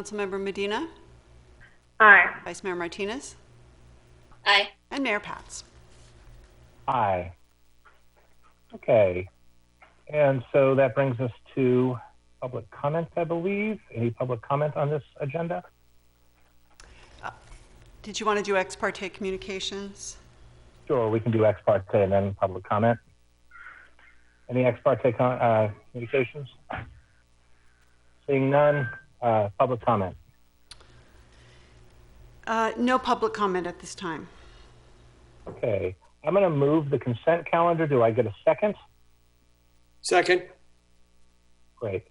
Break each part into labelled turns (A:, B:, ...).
A: Councilmember Medina,
B: Aye.
A: Vice Mayor Martinez,
B: Aye.
A: and Mayor Pats.
C: Aye. Okay. And so that brings us to public comment, I believe. Any public comment on this agenda?
A: Did you want to do ex parte communications?
C: Sure, we can do ex parte and then public comment. Any ex parte con- uh, communications? Seeing none, uh, public comment.
A: Uh, No public comment at this time.
C: Okay. I'm going to move the consent calendar. Do I get a second?
D: Second.
C: Great.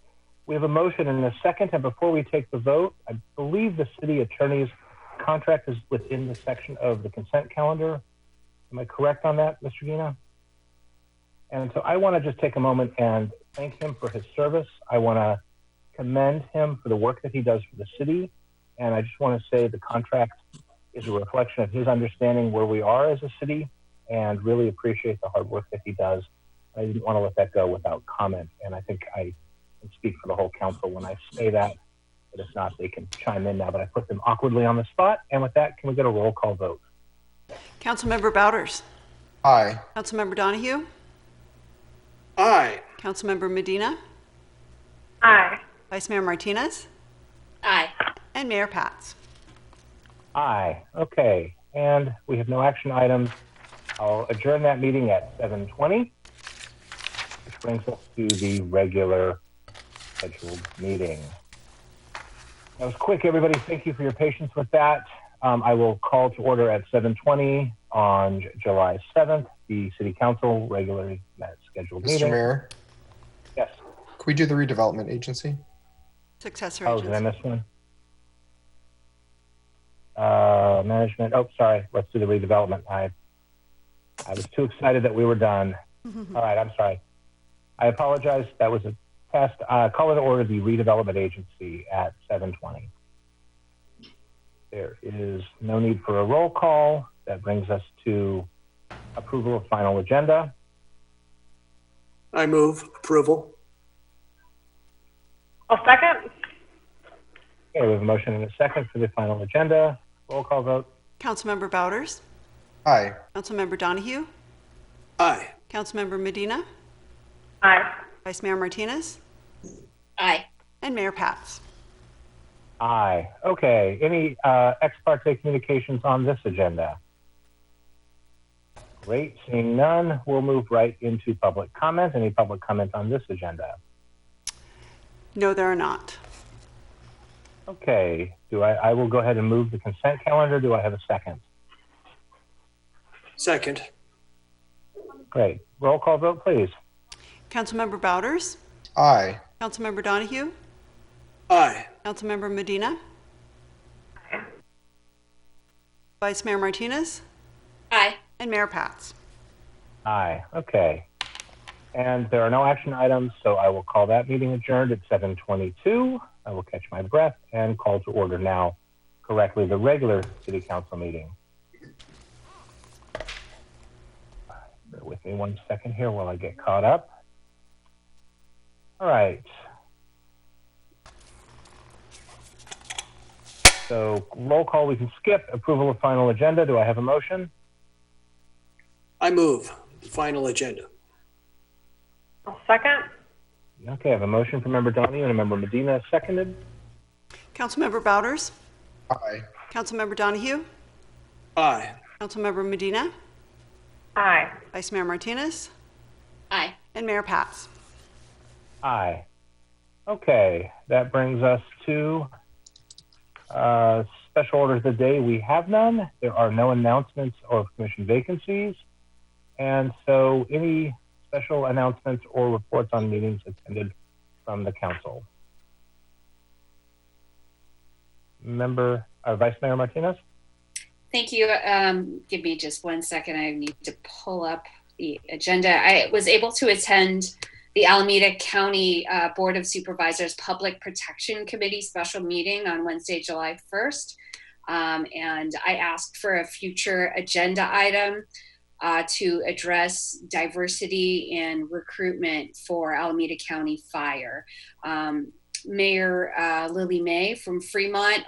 C: We have a motion and a second, and before we take the vote, I believe the city attorney's contract is within the section of the consent calendar. Am I correct on that, Mr. Gina? And so I want to just take a moment and thank him for his service. I want to commend him for the work that he does for the city, and I just want to say the contract is a reflection of his understanding where we are as a city, and really appreciate the hard work that he does. I didn't want to let that go without comment, and I think I and speak for the whole council when I say that. But if not, they can chime in now. But I put them awkwardly on the spot. And with that, can we get a roll call vote?
A: Councilmember Bouders,
E: Aye.
A: Councilmember Donahue,
D: Aye.
A: Councilmember Medina,
B: Aye.
A: Vice Mayor Martinez,
B: Aye.
A: and Mayor Pats.
C: Aye. Okay. And we have no action items. I'll adjourn that meeting at 7:20, which brings us to the regular scheduled meeting. That was quick, everybody. Thank you for your patience with that. Um, I will call to order at 7:20 on J- July 7th, the City Council regularly met scheduled
E: Mr.
C: meeting.
E: Mayor,
C: Yes.
E: could we do the redevelopment agency?
A: Successor
C: Oh, did I
A: agency.
C: miss one? Uh, management, oh, sorry, let's do the redevelopment. I, I was too excited that we were done. All right, I'm sorry. I apologize, that was a test. Uh, call it order the redevelopment agency at seven twenty. There is no need for a roll call. That brings us to approval of final agenda.
D: I move approval.
B: I'll second.
C: Okay, we have a motion and a second for the final agenda. Roll call vote.
A: Councilmember Bouders,
E: Aye.
A: Councilmember Donahue,
D: Aye.
A: Councilmember Medina,
B: Aye.
A: Vice Mayor Martinez,
B: Aye.
A: and Mayor Pats.
C: Aye. Okay. Any uh, ex parte communications on this agenda? Great. Seeing none, we'll move right into public comment. Any public comment on this agenda?
A: No, there are not.
C: Okay. Do I, I will go ahead and move the consent calendar. Do I have a second?
D: Second.
C: Great. Roll call vote, please.
A: Councilmember Bouders,
E: Aye.
A: Councilmember Donahue,
D: Aye.
A: Councilmember Medina, Vice Mayor Martinez,
B: Aye.
A: and Mayor Pats.
C: Aye. Okay. And there are no action items, so I will call that meeting adjourned at 7:22. I will catch my breath and call to order now correctly the regular city council meeting. Bear with me one second here while I get caught up. All right. So roll call we can skip. Approval of final agenda. Do I have a motion?
D: I move final agenda.
B: I'll second.
C: Okay, I have a motion from Member Donahue and a Member Medina, seconded.
A: Councilmember Bouders,
E: Aye.
A: Councilmember Donahue,
D: Aye.
A: Councilmember Medina,
B: Aye.
A: Vice Mayor Martinez,
B: Aye.
A: and Mayor Pats.
C: Aye. Okay, that brings us to uh, special orders of the day. We have none. There are no announcements or commission vacancies. And so any special announcements or reports on meetings attended from the council? Member, uh, Vice Mayor Martinez?
F: Thank you. Um, give me just one second. I need to pull up the agenda. I was able to attend the Alameda County uh, Board of Supervisors Public Protection Committee special meeting on Wednesday, July 1st. Um, and I asked for a future agenda item uh, to address diversity in recruitment for Alameda County Fire. Um, Mayor uh, Lily May from Fremont